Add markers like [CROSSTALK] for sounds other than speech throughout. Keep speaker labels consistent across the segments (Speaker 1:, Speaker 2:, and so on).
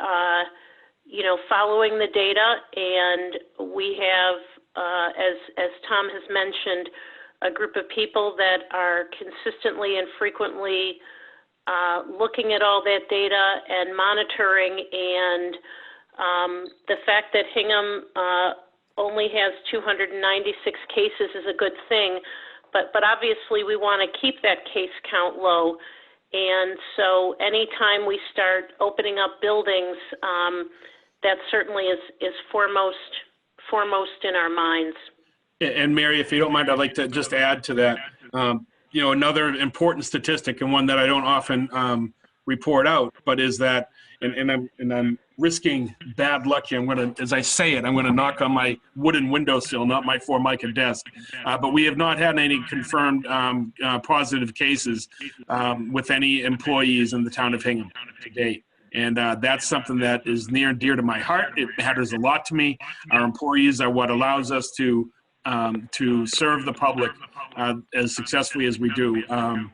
Speaker 1: uh, you know, following the data, and we have, uh, as, as Tom has mentioned, a group of people that are consistently and frequently uh, looking at all that data and monitoring, and um, the fact that Hingham uh, only has 296 cases is a good thing, but, but obviously, we want to keep that case count low. And so anytime we start opening up buildings, um, that certainly is, is foremost, foremost in our minds.
Speaker 2: And- And Mary, if you don't mind, I'd like to just add to that. Um, You know, another important statistic and one that I don't often um, report out, but is that, and, and I'm, and I'm risking bad luck here. I'm gonna, as I say it, I'm gonna knock on my wooden windowsill, not my formica desk. Uh, But we have not had any confirmed um, uh, positive cases um, with any employees in the town of Hingham to date. And uh, that's something that is near and dear to my heart. It matters a lot to me. Our employees are what allows us to um, to serve the public uh, as successfully as we do. Um,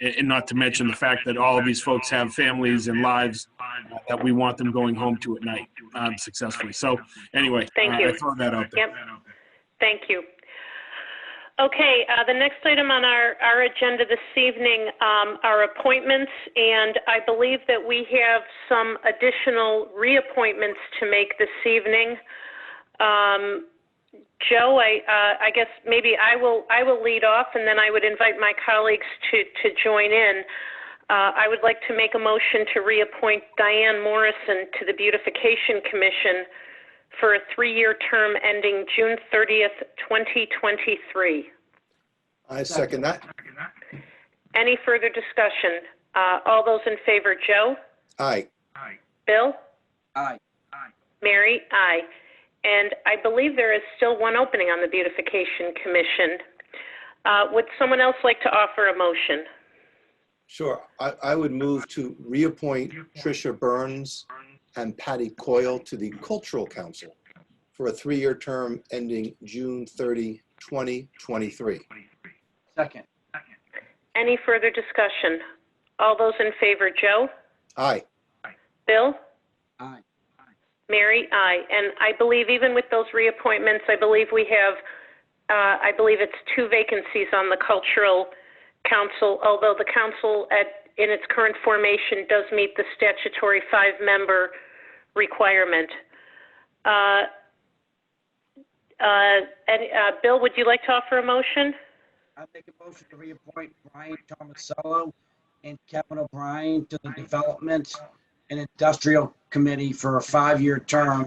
Speaker 2: and and not to mention the fact that all of these folks have families and lives uh, that we want them going home to at night um, successfully. So, anyway,
Speaker 1: Thank
Speaker 2: uh,
Speaker 1: you.
Speaker 2: I throw that out there.
Speaker 1: Yep. Thank you. Okay, uh, the next item on our, our agenda this evening um, are appointments, and I believe that we have some additional reappointments to make this evening. Um, Joe, I, uh, I guess maybe I will, I will lead off, and then I would invite my colleagues to, to join in. Uh, I would like to make a motion to reappoint Diane Morrison to the Beautification Commission for a three-year term ending June 30th, 2023.
Speaker 3: I second that.
Speaker 1: Any further discussion? Uh, All those in favor, Joe?
Speaker 3: Aye.
Speaker 1: Bill?
Speaker 4: Aye.
Speaker 1: Mary? Aye. And I believe there is still one opening on the Beautification Commission. Uh, Would someone else like to offer a motion?
Speaker 3: Sure. I, I would move to reappoint Tricia Burns and Patty Coyle to the Cultural Council for a three-year term ending June 30, 2023.
Speaker 4: Second.
Speaker 1: Any further discussion? All those in favor, Joe?
Speaker 3: Aye.
Speaker 1: Bill?
Speaker 4: Aye.
Speaker 1: Mary, aye. And I believe even with those reappointments, I believe we have, uh, I believe it's two vacancies on the Cultural Council, although the council at, in its current formation does meet the statutory five-member requirement. Uh, uh, And, uh, Bill, would you like to offer a motion?
Speaker 4: I make a motion to reappoint Brian Tomasello and Kevin O'Brien to the Development and Industrial Committee for a five-year term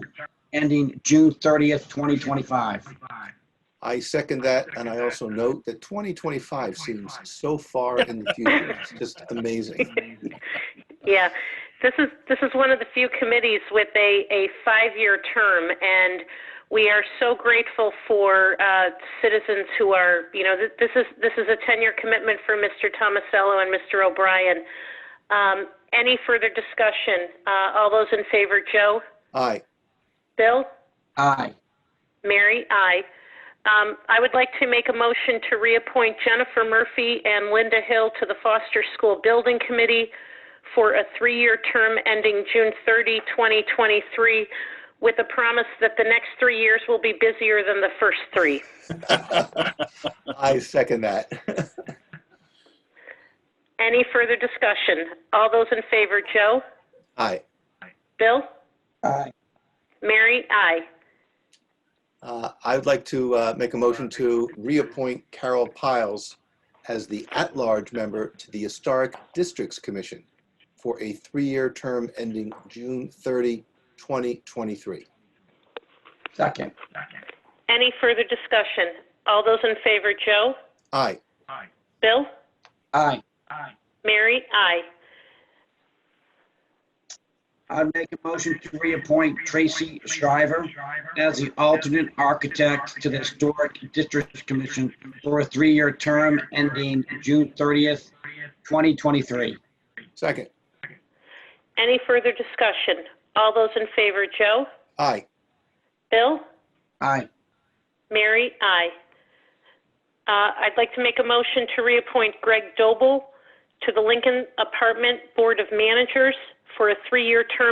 Speaker 4: ending June 30th, 2025.
Speaker 3: I second that, and I also note that 2025 seems so far in the future. It's just amazing.
Speaker 1: Yeah, this is, this is one of the few committees with a, a five-year term, and we are so grateful for uh, citizens who are, you know, th- this is, this is a 10-year commitment for Mr. Tomasello and Mr. O'Brien. Um, Any further discussion? Uh, All those in favor, Joe?
Speaker 3: Aye.
Speaker 1: Bill?
Speaker 4: Aye.
Speaker 1: Mary? Aye. Um, I would like to make a motion to reappoint Jennifer Murphy and Linda Hill to the Foster School Building Committee for a three-year term ending June 30, 2023, with a promise that the next three years will be busier than the first three.
Speaker 3: I second that. [LAUGHS]
Speaker 1: Any further discussion? All those in favor, Joe?
Speaker 3: Aye.
Speaker 1: Bill?
Speaker 4: Aye.
Speaker 1: Mary? Aye.
Speaker 3: Uh, I would like to uh, make a motion to reappoint Carol Piles as the at-large member to the Historic Districts Commission for a three-year term ending June 30, 2023.
Speaker 4: Second.
Speaker 1: Any further discussion? All those in favor, Joe?
Speaker 3: Aye.
Speaker 1: Bill?
Speaker 4: Aye.
Speaker 1: Mary? Aye.
Speaker 4: I make a motion to reappoint Tracy Shriver as the alternate architect to the Historic District Commission for a three-year term ending June 30th, 2023.
Speaker 3: Second.
Speaker 1: Any further discussion? All those in favor, Joe?
Speaker 3: Aye.
Speaker 1: Bill?
Speaker 4: Aye.
Speaker 1: Mary? Aye. Uh, I'd like to make a motion to reappoint Greg Doble to the Lincoln Apartment Board of Managers for a three-year term